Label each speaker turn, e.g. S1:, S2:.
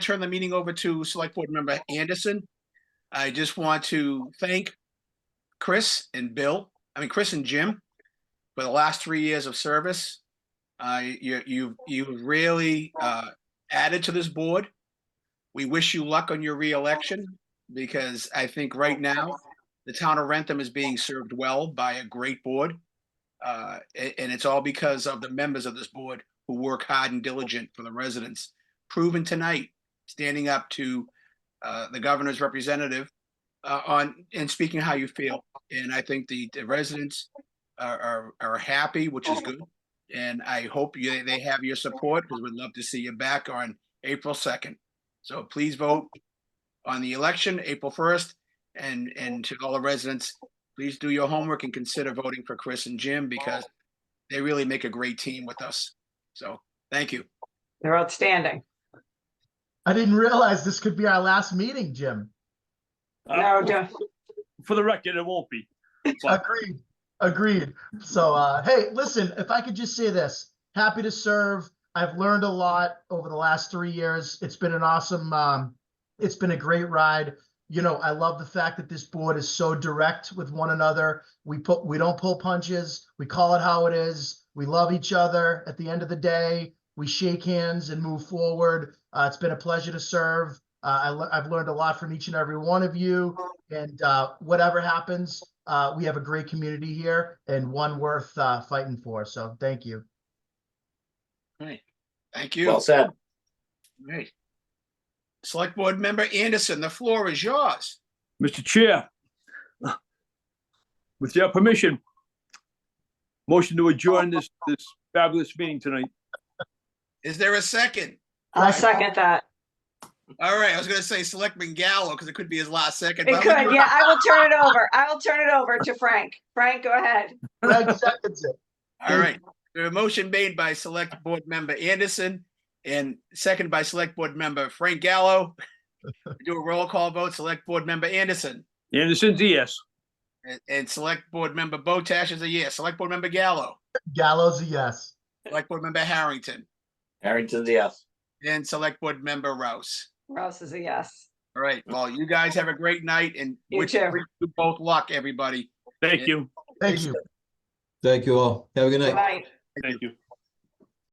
S1: turn the meeting over to Select Board Member Anderson. I just want to thank Chris and Bill, I mean, Chris and Jim for the last three years of service. Uh, you, you, you really, uh, added to this board. We wish you luck on your reelection because I think right now the town of Rentham is being served well by a great board. Uh, a- and it's all because of the members of this board who work hard and diligent for the residents proven tonight, standing up to uh, the governor's representative uh, on, and speaking how you feel. And I think the the residents are, are, are happy, which is good. And I hope you, they have your support, because we'd love to see you back on April 2nd. So please vote on the election, April 1st. And, and to all the residents, please do your homework and consider voting for Chris and Jim, because they really make a great team with us. So, thank you.
S2: They're outstanding.
S3: I didn't realize this could be our last meeting, Jim.
S2: No,
S4: Uh,
S2: don't,
S4: For the record, it won't be. But
S3: Agreed. Agreed. So, uh, hey, listen, if I could just say this, happy to serve. I've learned a lot over the last three years. It's been an awesome, um, it's been a great ride. You know, I love the fact that this board is so direct with one another. We put, we don't pull punches. We call it how it is. We love each other. At the end of the day, we shake hands and move forward. Uh, it's been a pleasure to serve. Uh, I, le- I've learned a lot from each and every one of you. And uh, whatever happens, uh, we have a great community here and one worth uh, fighting for. So thank you.
S1: Thank you.
S5: Well said.
S1: Right. Select Board Member Anderson, the floor is yours.
S4: Mr. Chair, with your permission, motion to adjourn this, this fabulous meeting tonight.
S1: Is there a second?
S2: I'll second that.
S1: All right, I was gonna say Selectman Gallo, because it could be his last second.
S2: It
S1: but I'm
S2: could,
S1: gonna-
S2: yeah, I will turn it over. I will turn it over to Frank. Frank, go ahead.
S3: Greg seconds it.
S1: All right, the motion made by Select Board Member Anderson and second by Select Board Member Frank Gallo. We Do a roll call vote, Select Board Member Anderson
S4: Anderson, yes.
S1: and- and Select Board Member Botash is a yes, Select Board Member Gallo,
S3: Gallows a yes.
S1: Select Board Member Harrington,
S5: Harrington's a yes.
S1: and Select Board Member Rouse.
S2: Rouse is a yes.
S1: All right, well, you guys have a great night and
S2: You
S1: wish
S2: too.
S1: wish you both luck, everybody.
S4: Thank you.
S3: Thank you.
S6: Thank you all. Have a good night.
S2: Good night.
S4: Thank you.